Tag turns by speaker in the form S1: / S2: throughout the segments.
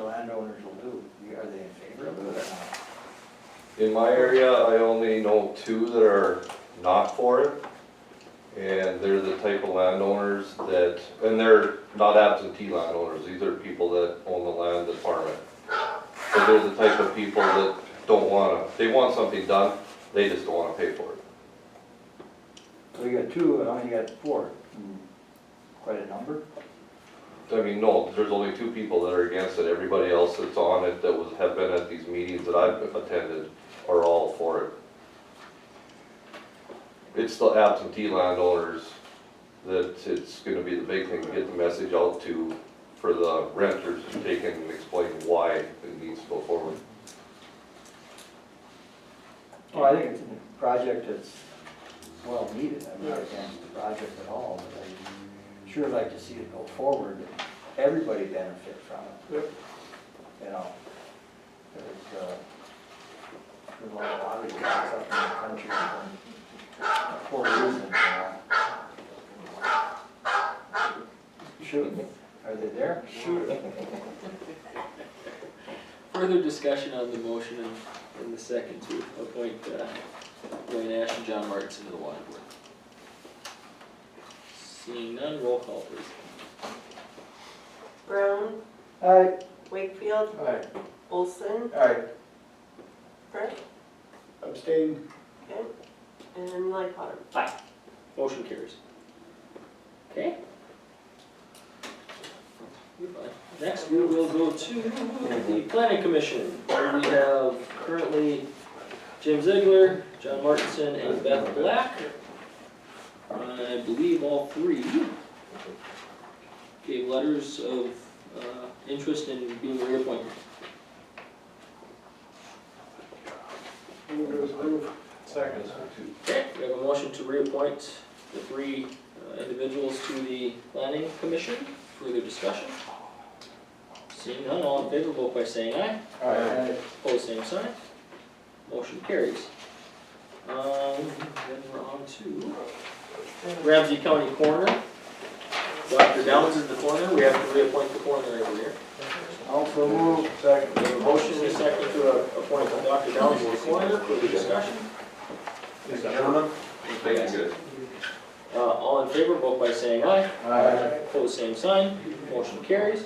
S1: members will do, You- are they in favor of it or not?
S2: In my area, I only know two that are not for it. And they're the type of landowners that, and they're not absentee landowners, these are people that own the land that farm it. But they're the type of people that don't wanna, they want something done, they just don't wanna pay for it.
S1: So you got two, and I only got four. Hmm. Quite a number.
S2: I mean, no, there's only two people that are against it, everybody else that's on it, that was, have been at these meetings that I've attended, are all for it. It's the absentee landowners that it's gonna be the big thing to get the message out to, for the renters to take in and explain why it needs to go forward.
S1: Well, I think it's a project that's well needed, I'm not against the project at all, but I sure like to see it go forward, and everybody benefit from it. You know, there's, uh, there's a lot of lobbying that's up in the country for- for reasons, you know. Shoot, are they there? Sure.
S3: Further discussion on the motion in, in the second to appoint, uh, Roy Nash and John Martinson to the water board. Seeing none, roll call please.
S4: Brown,
S1: Aye.
S4: Wakefield,
S5: Aye.
S4: Olson,
S5: Aye.
S4: Brett,
S5: Abstain.
S4: and Lightbottom.
S3: Motion carries. Okay? You're fine. Next, we will go to the planning commission, where we have currently Jim Ziegler, John Martinson, and Beth Black. I believe all three gave letters of, uh, interest in being reappointed.
S5: Move to approve. Second.
S3: Okay, we have a motion to reappoint the three uh, individuals to the planning commission. Further discussion? Seeing none, all in favor, vote by saying aye.
S5: Aye.
S3: Opposed, same sign. Motion carries. Um, then we're on to Ramsey County Coroner. Dr. Downs is the coroner. We have to reappoint the coroner every year.
S1: Also move.
S5: Second.
S3: We have a motion and a second to uh, appoint Dr. Downs as the coroner. Further discussion?
S5: Mr. Chairman?
S3: Uh, all in favor, vote by saying aye.
S5: Aye.
S3: Pose same sign, motion carries.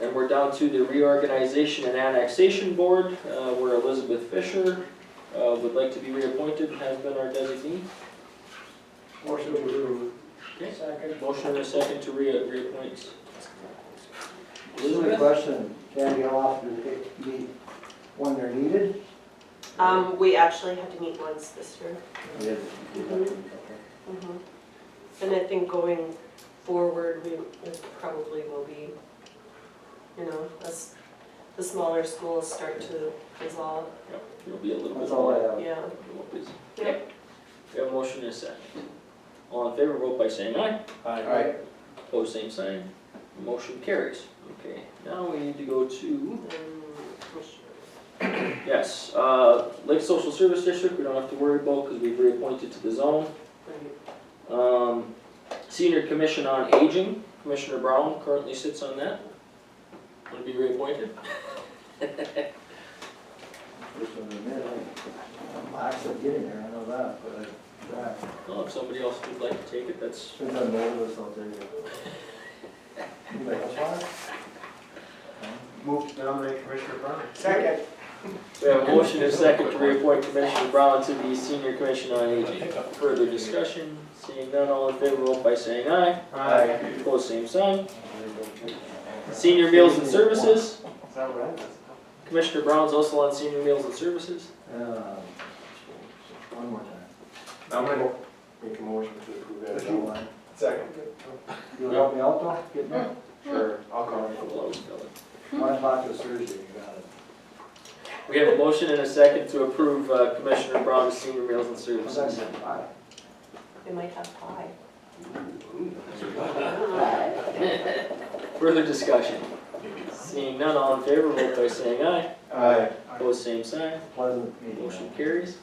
S3: And we're down to the reorganization and annexation board, uh, where Elizabeth Fisher, uh, would like to be reappointed, has been our designee.
S5: Motion to approve.
S3: Okay.
S5: Second.
S3: Motion and a second to rea- reappoint.
S1: This is a
S3: Elizabeth,
S1: question, can how often do they meet when they're needed?
S4: Um, we actually had to meet once this year. Mhm. And I think going forward, we it probably will be, you know, as the smaller schools start to dissolve,
S3: it'll be a little bit
S1: That's all I
S3: more.
S1: have.
S4: yeah.
S3: Okay. We have a motion and a second. All in favor, vote by saying aye.
S5: Aye.
S3: Pose same sign, motion carries. Okay, now we need to go to
S4: Um, commissioners.
S3: Yes, uh, Lake Social Service District, we don't have to worry about because we've reappointed to the zone. Um, Senior Commission on Aging, Commissioner Brown currently sits on that. Want to be reappointed?
S1: Just in a minute, I'm actually getting there, I know that, but I, that,
S3: Well, if somebody else would like to take it, that's,
S1: since I'm old, it's not there yet. You like a pot?
S5: Move to nominate Commissioner Brown. Second.
S3: we have a motion and a second to reappoint Commissioner Brown to the Senior Commission on Aging. Further discussion, seeing none, all in favor, vote by saying aye.
S5: Aye.
S3: Opposed, same sign. Senior Meals and Services,
S5: Is that right?
S3: Commissioner Brown's also on Senior Meals and Services.
S1: Um, One more time.
S5: I'm gonna make a motion to approve
S1: If you want.
S5: Second.
S1: You'll help me out though, get me?
S5: Mm-hmm. Sure, I'll call it.
S3: Hello, fellas.
S1: One o'clock is Thursday, you got it.
S3: We have a motion and a second to approve uh, Commissioner Brown's senior meals and services.
S1: Aye.
S4: They might have pie.
S3: Further discussion? Seeing none, all in favor, vote by saying aye.
S5: Aye.
S3: Opposed, same sign.
S1: Pleasant meeting.
S3: Motion carries.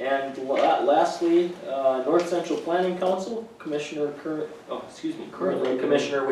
S3: And la- lastly, uh, North Central Planning Council, Commissioner current, oh, excuse me, currently Commissioner